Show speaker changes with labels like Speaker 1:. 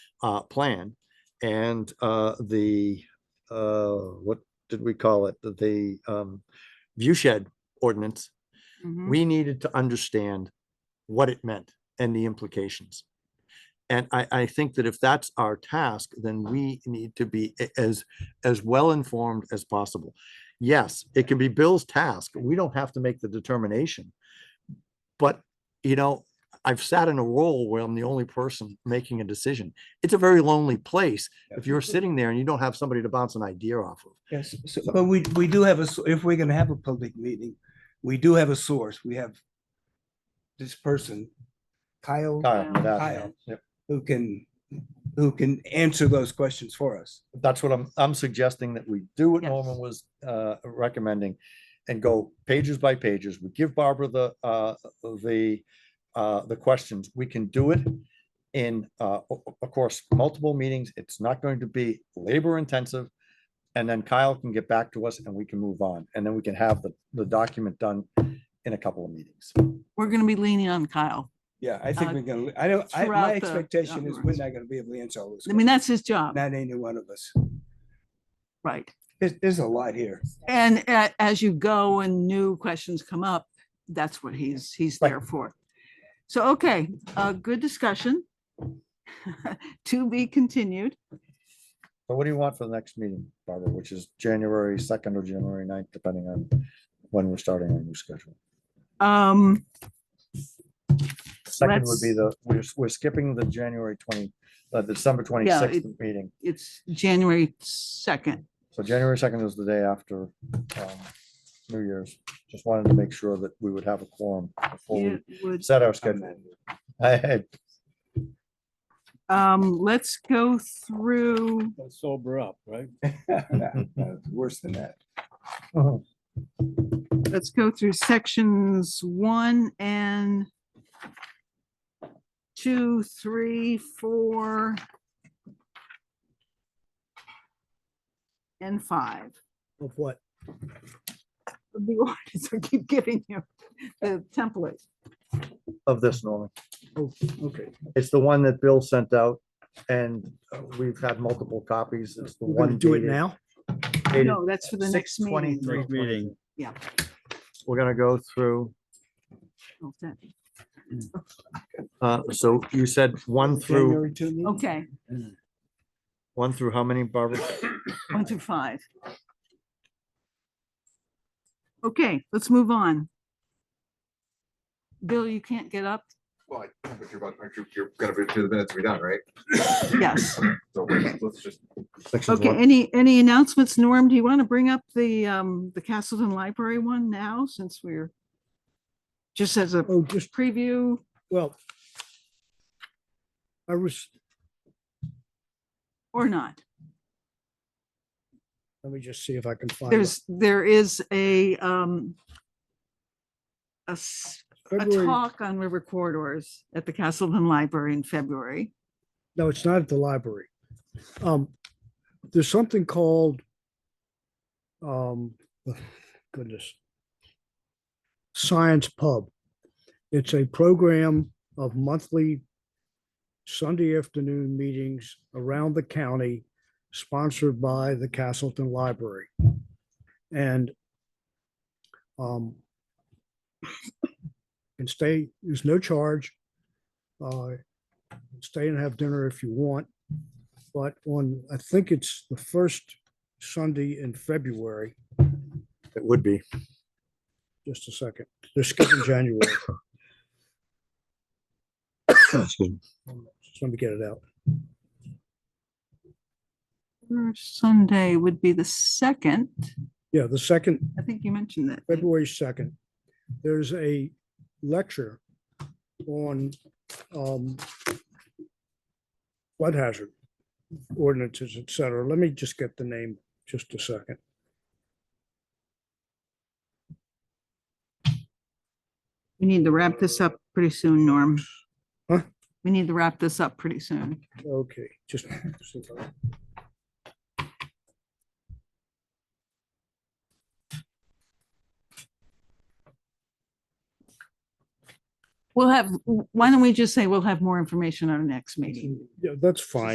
Speaker 1: uh, plan. And, uh, the, uh, what did we call it? The- The, um, view shed ordinance.
Speaker 2: Mhm.
Speaker 1: We needed to understand what it meant and the implications. And I, I think that if that's our task, then we need to be a- as, as well-informed as possible. Yes, it can be Bill's task. We don't have to make the determination. But, you know, I've sat in a role where I'm the only person making a decision. It's a very lonely place if you're sitting there and you don't have somebody to bounce an idea off of.
Speaker 3: Yes, so,
Speaker 1: So-
Speaker 3: but we, we do have a, s- if we're gonna have a public meeting, we do have a source. We have this person, Kyle,
Speaker 2: Kyle,
Speaker 1: Kyle,
Speaker 3: Kyle.
Speaker 1: Yep.
Speaker 3: who can, who can answer those questions for us.
Speaker 1: that's what I'm, I'm suggesting that we do what
Speaker 2: Yes.
Speaker 1: Norman was uh, recommending and go pages by pages. We give Barbara the, uh, the, uh, the questions. We can do it in, uh, o- o- of course, multiple meetings. It's not going to be labor intensive. And then Kyle can get back to us and we can move on. And then we can have the, the document done in a couple of meetings.
Speaker 2: We're gonna be leaning on Kyle.
Speaker 3: Yeah, I think
Speaker 2: Uh,
Speaker 3: we're gonna, I don't, I,
Speaker 2: throughout
Speaker 3: my
Speaker 2: the
Speaker 3: expectation is we're
Speaker 2: documents.
Speaker 3: not gonna be able to answer all those.
Speaker 2: I mean,
Speaker 3: questions.
Speaker 2: that's his job,
Speaker 3: Not any one of us.
Speaker 2: right?
Speaker 3: There's, there's a lot here.
Speaker 2: And a- as you go and new questions come up, that's what he's, he's
Speaker 1: Right.
Speaker 2: there for. So, okay, uh, good discussion. To be continued.
Speaker 1: So what do you want for the next meeting, Barbara, which is January 2nd or January 9th, depending on when we're starting our new schedule?
Speaker 2: Um,
Speaker 1: Second would be the,
Speaker 2: Let's-
Speaker 1: we're, we're skipping the January twenty, uh, December
Speaker 2: it-
Speaker 1: twenty-sixth meeting.
Speaker 2: it's January second.
Speaker 1: So January second is the day after, um, New Year's. Just wanted to make sure that we would have a quorum before
Speaker 2: It
Speaker 1: we
Speaker 2: would,
Speaker 1: set our schedule. I had,
Speaker 2: um, let's go through,
Speaker 4: Gotta sober up, right?
Speaker 3: Worse than that.
Speaker 2: let's go through sections one and two, three, four, and five.
Speaker 3: Of what?
Speaker 2: the ordinance, I keep giving you the template.
Speaker 1: of this, Norman. Oh,
Speaker 3: Okay.
Speaker 1: It's the one that Bill sent out and uh, we've had multiple copies. It's the one. Do it now?
Speaker 2: No, that's for the next meeting.
Speaker 1: 6/23 meeting.
Speaker 2: Yeah.
Speaker 1: We're gonna go through,
Speaker 2: Okay.
Speaker 1: uh, so you said one through,
Speaker 3: January two meeting?
Speaker 2: Okay,
Speaker 1: one through how many, Barbara?
Speaker 2: one through five. Okay, let's move on. Bill, you can't get up?
Speaker 5: Well, I- but you're about, aren't you, you're gonna be two minutes to be done, right?
Speaker 2: Yes.
Speaker 5: So let's let's just,
Speaker 1: Sections
Speaker 2: Okay,
Speaker 1: one-
Speaker 2: any, any announcements? Norm, do you want to bring up the, um, the Castleton Library one now, since we're just as a
Speaker 6: Oh, just,
Speaker 2: preview?
Speaker 6: well, I was,
Speaker 2: Or not?
Speaker 6: let me just see if I can find. it.
Speaker 2: There's, there is a, um, a s- a
Speaker 6: February,
Speaker 2: talk on river corridors at the Castleton Library in February.
Speaker 6: no, it's not at the library. Um, there's something called, um, goodness. Science Pub. It's a program of monthly Sunday afternoon meetings around the county sponsored by the Castleton Library. And um, can stay, there's no charge. Uh, Stay and have dinner if you want. But on, I think it's the first Sunday in February,
Speaker 1: It would be.
Speaker 6: just a second, they're skipping January.
Speaker 1: Excuse me.
Speaker 6: Just let me get it out.
Speaker 2: First Sunday would be the second.
Speaker 6: Yeah, the second,
Speaker 2: I think you mentioned that.
Speaker 6: February second, there's a lecture on um flood hazard ordinances, et cetera. Let me just get the name just a second.
Speaker 2: We need to wrap this up pretty soon, Norm.
Speaker 6: Huh?
Speaker 2: We need to wrap this up pretty soon.
Speaker 6: Okay, just. see if I-
Speaker 2: We'll have, why don't we just say we'll have more information at our next meeting?
Speaker 6: Yeah, that's fine.